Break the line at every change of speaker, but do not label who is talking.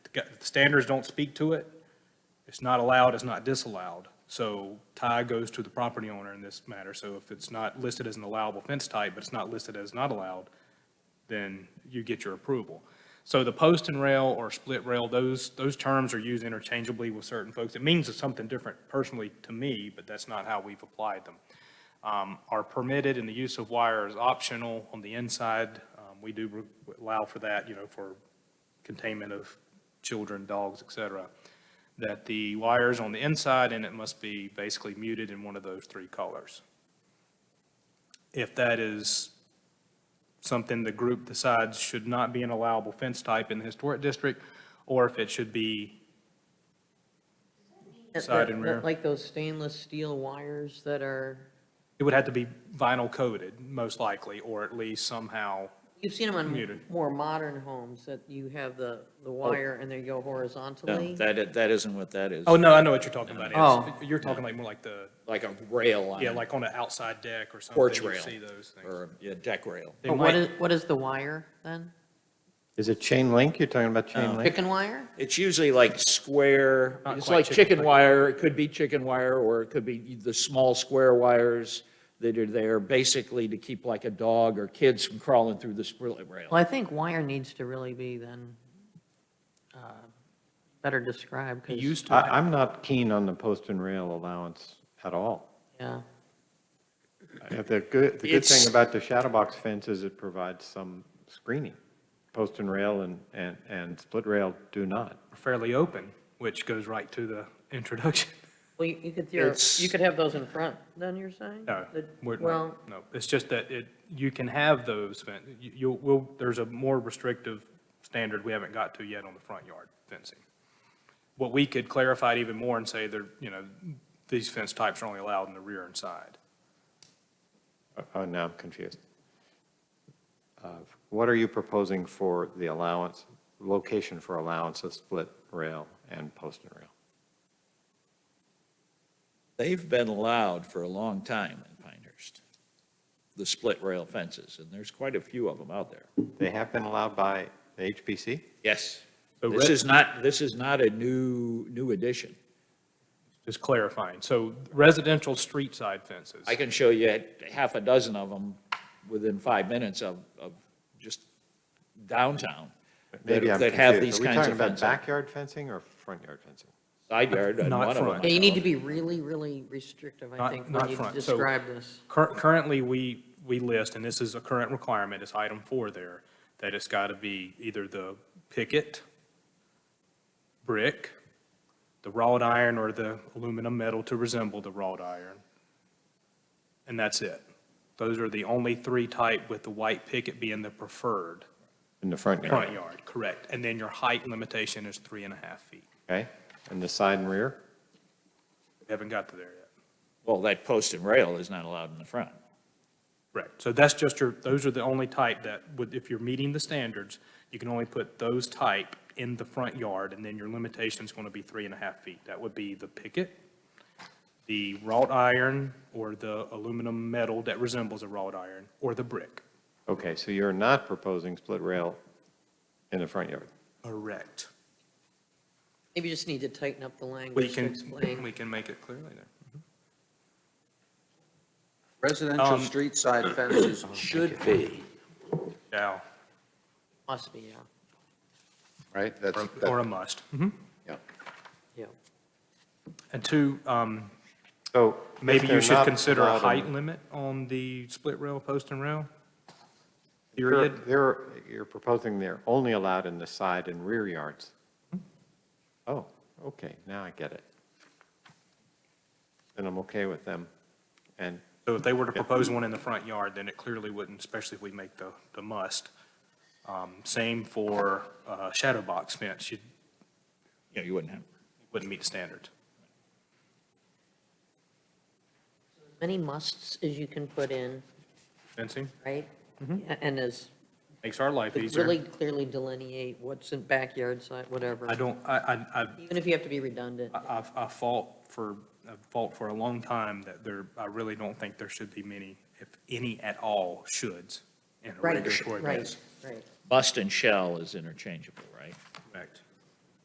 got- the standards don't speak to it. It's not allowed, it's not disallowed. So tie goes to the property owner in this matter. So if it's not listed as an allowable fence type, but it's not listed as not allowed, then you get your approval. So the post and rail or split rail, those, those terms are used interchangeably with certain folks. It means something different personally to me, but that's not how we've applied them. Um, Are permitted and the use of wire is optional on the inside. Um, We do re- allow for that, you know, for containment of children, dogs, et cetera. That the wire's on the inside and it must be basically muted in one of those three colors. If that is something the group decides should not be an allowable fence type in the historic district, or if it should be,
That-
Side
that-
and
that
rear.
Like those stainless steel wires that are,
it would have to be vinyl coated, most likely, or at least somehow,
you've seen them on
Muted.
more modern homes, that you have the, the wire and they go horizontally.
No, that, i- that isn't what that is.
oh, no, I know what you're talking about.
Oh.
It's- You're talking like more like the,
Like a rail on
yeah,
a
like on an outside deck or something.
porch
you
rail
see those things.
or a deck rail.
They
But what
might-
is, what is the wire then?
Is it chain link? You're talking about chain link?
Chicken wire?
It's usually like square,
Not
it's
quite
like
chicken
chicken
wire.
wire, it could be chicken wire, or it could be the small square wires that are there basically to keep like a dog or kids from crawling through the split rail.
Well, I think wire needs to really be then, uh, better described,
It
'cause-
used to,
I, I'm not keen on the post and rail allowance at all.
yeah.
If The good, the good
It's-
thing about the shadow box fence is it provides some screening. Post and rail and, and, and split rail do not.
be fairly open, which goes right to the introduction.
Well, you you could, theor-
It's-
you could have those in front, then you're saying?
No,
The-
we're not-
Well,
no, it's just that it, you can have those, fen- you, you'll, will, there's a more restrictive standard we haven't got to yet on the front yard fencing. What we could clarify it even more and say there, you know, these fence types are only allowed in the rear and side.
Oh, Oh, now I'm confused. Uh, What are you proposing for the allowance, location for allowance of split rail and post and rail?
They've been allowed for a long time in Pinehurst, the split rail fences, and there's quite a few of them out there.
They have been allowed by the HPC?
Yes.
So
This
red-
is not, this is not a new, new addition.
Just clarifying, so residential street side fences.
I can show you half a dozen of them within five minutes of, of just downtown. that-
Maybe I'm
That
confused.
have these kinds
Are
of
we talking about
fences.
backyard fencing or front yard fencing?
Side yard, and
Not
one of them.
front.
yeah, you need to
I
be really, really restrictive, I
Not-
think,
not
when you
front. So-
describe this.
Cur- Currently, we, we list, and this is a current requirement, it's item four there, that it's got to be either the picket, brick, the wrought iron or the aluminum metal to resemble the wrought iron. And that's it. Those are the only three type, with the white picket being the preferred
In the front yard?
front yard, correct. And then your height limitation is three and a half feet.
Okay, and the side and rear?
We Haven't got to there yet.
Well, that post and rail is not allowed in the front.
Correct. So that's just your, those are the only type that would, if you're meeting the standards, you can only put those type in the front yard, and then your limitation's going to be three and a half feet. That would be the picket, the wrought iron, or the aluminum metal that resembles a wrought iron, or the brick.
Okay, so you're not proposing split rail in the front yard?
Correct.
Maybe you just need to tighten up the
We
language to
can,
explain.
we can make it clear later.
Residential
Um,
street side fences should be,
Yeah,
Must be, yeah,
right? That's,
or-
that-
or a must. Mhm.
yeah.
yeah.
And two, um,
So if
Maybe you
they're
should
not
consider a
allowed in-
height limit on the split rail, post and rail?
They're-
Period?
They're, you're proposing they're only allowed in the side and rear yards? Hmm. Oh, okay, now I get it. Then I'm okay with them. And,
So if they were to propose one in the front yard, then it clearly wouldn't, especially if we make the, the must. Um, Same for uh, shadow box fence, you
You know, you wouldn't have.
wouldn't meet the standard.
Many musts as you can put in,
Fencing
right? A- And as,
makes our life
really
easier.
clearly delineate what's in backyard side, whatever.
I don't, I, I, I-
Even if you have to be redundant.
I, I've- I fought for, I fought for a long time that there, I really don't think there should be many, if any at all, shoulds in a
Right,
regulatory
right,
basis.
right.
Must and shall is interchangeable, right?
Correct.